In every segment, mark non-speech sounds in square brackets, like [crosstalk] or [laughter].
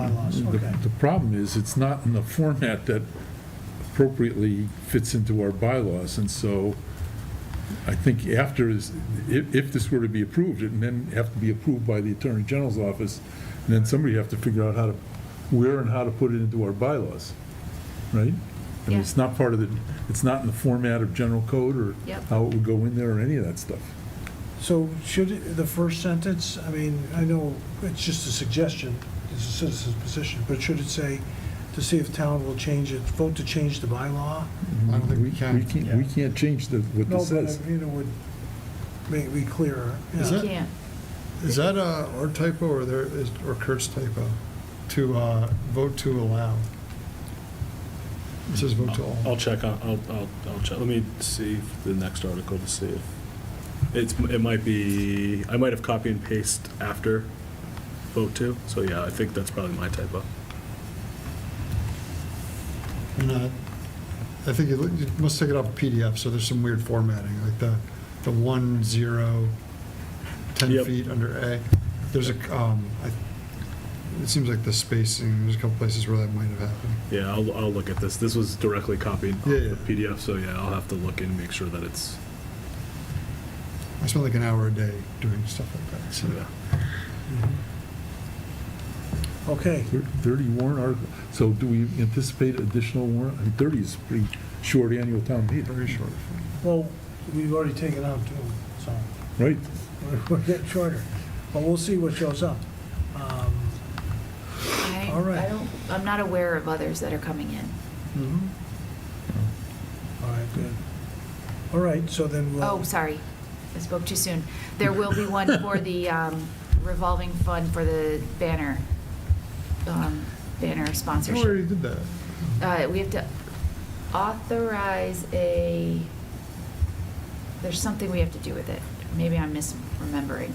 bylaws, The okay. the problem is, it's not in the format that appropriately fits into our bylaws, and so I think after, is- if, if this were to be approved, and then have to be approved by the Attorney General's office, and then somebody have to figure out how to, where and how to put it into our bylaws, right? I mean, it's Yeah. not part of the, it's not in the format of general code, or Yep. how it would go in there, or any of that stuff. So should it- the first sentence, I mean, I know it's just a suggestion, it's a citizen's position, but should it say, to see if town will change it, vote to change the bylaw? I don't think we can. We can't, we can't change the, what No, this but says. I mean, it would make me clearer. Is yeah. it? Yeah, Is that uh, our typo or there is, or Kurt's typo? To uh, vote to allow. It says vote to I'll all. check on, I'll, I'll, I'll check, let me see if the next article to see if, it's, it might be, I might have copy and paste after vote two, so yeah, I think that's probably my typo. And uh, I think you you must take it off PDF, so there's some weird formatting, like the, the one, zero, 10 Yep. feet under A. There's a, um, I- it seems like the spacing, there's a couple places where that might have happened. Yeah, I'll, I'll look at this, this was directly copied off Yeah, yeah. the PDF, so yeah, I'll have to look and make sure that it's, I spend like an hour a day doing stuff like that, so. yeah. Okay, 30 warrant articles, so do we anticipate additional warrant? I mean, 30 is pretty short annual town meeting, Very short. well, we've already taken out two, so [laughs] right? we're- we're getting shorter, but we'll see what shows up. Um, I, All right. I don't, I'm not aware of others that are coming in. Mm-hmm. Mhm. All right, good. All right, so then we'll. Oh, sorry, I spoke too soon. There will be one for [laughs] the um, revolving fund for the banner, um, banner I already sponsorship. did that. Uh, We have to authorize a, there's something we have to do with it. Maybe I'm misremembering.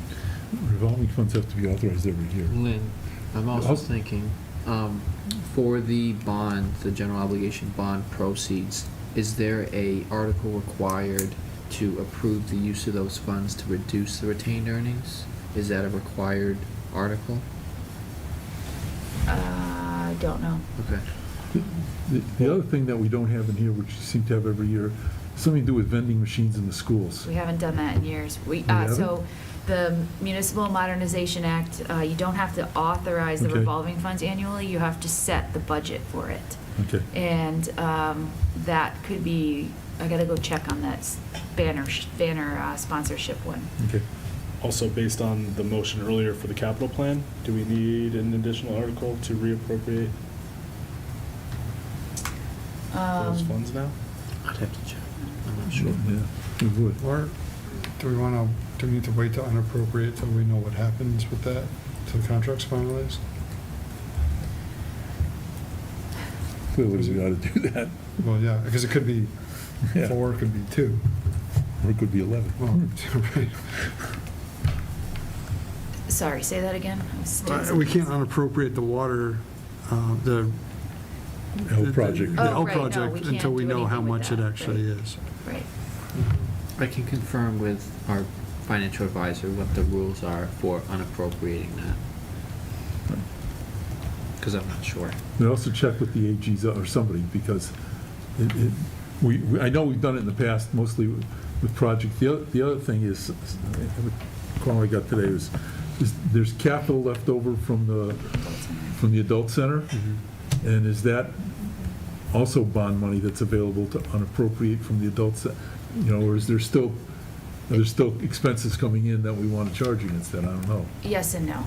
Revolving funds have to be authorized every year. Lynn, I'm also Yes. thinking, um, for the bond, the general obligation bond proceeds, is there a article required to approve the use of those funds to reduce the retained earnings? Is that a required article? Uh, I don't know. Okay. The- The other thing that we don't have in here, which you seem to have every year, something to do with vending machines in the schools. We haven't done that in years. We, We uh, haven't? so the Municipal Modernization Act, uh, you don't have to authorize the Okay. revolving funds annually, you have to set the budget for it. Okay. And um, that could be, I gotta go check on that s- banner, sh- banner uh, sponsorship one. Okay. Also, based on the motion earlier for the capital plan, do we need an additional article to reappropriate those Um, funds now? I'd have to check. I'm not sure. Yeah, we would. Or do we want to, do we need to wait to unappropriate till we know what happens with that, till the contract's finalized? Clearly, we ought to do that. Well, yeah, because it could be Yeah. four, it could be two. Or it could be 11. Well, [laughs] right. Sorry, say that again? I was doing Uh, something We can't else. unappropriate the water, uh, the. L project. The L Oh, right, no, we project, can't until we do know how anything with much it that, actually right. is. Right. I can confirm with our financial advisor what the rules are for unappropriating that. Because I'm not sure. And also check with the AGs or somebody, because it, it, we, we- I know we've done it in the past, mostly with with project. The other, the other thing is, the call I got today was, is there's capital left over from the, from the adult center? And is that also bond money that's available to unappropriate from the adult, ce- you know, or is there still, are there still expenses coming in that we want to charge against that? I don't know. Yes and no.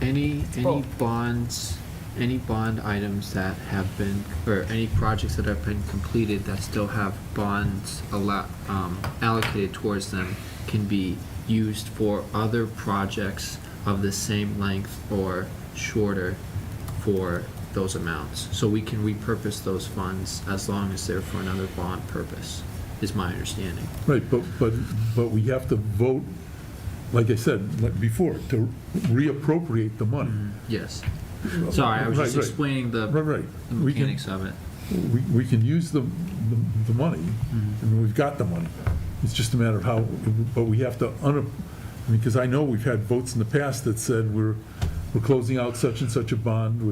Any, any both. bonds, any bond items that have been, or any projects that have been completed that still have bonds allo- um, allocated towards them can be used for other projects of the same length or shorter for those amounts. So we can repurpose those funds as long as they're for another bond purpose, is my understanding. Right, but, but, but we have to vote, like I said, like before, to reappropriate the money. Yes. Mm. Sorry, I Mm-hmm. was just Right, right. explaining the Right, right. the We can- mechanics of it. We, we can use the, the- the money, Mm-hmm. I mean, we've got the money. It's just a matter of how, but we have to un, I mean, because I know we've had votes in the past that said we're, we're closing out such and such a bond,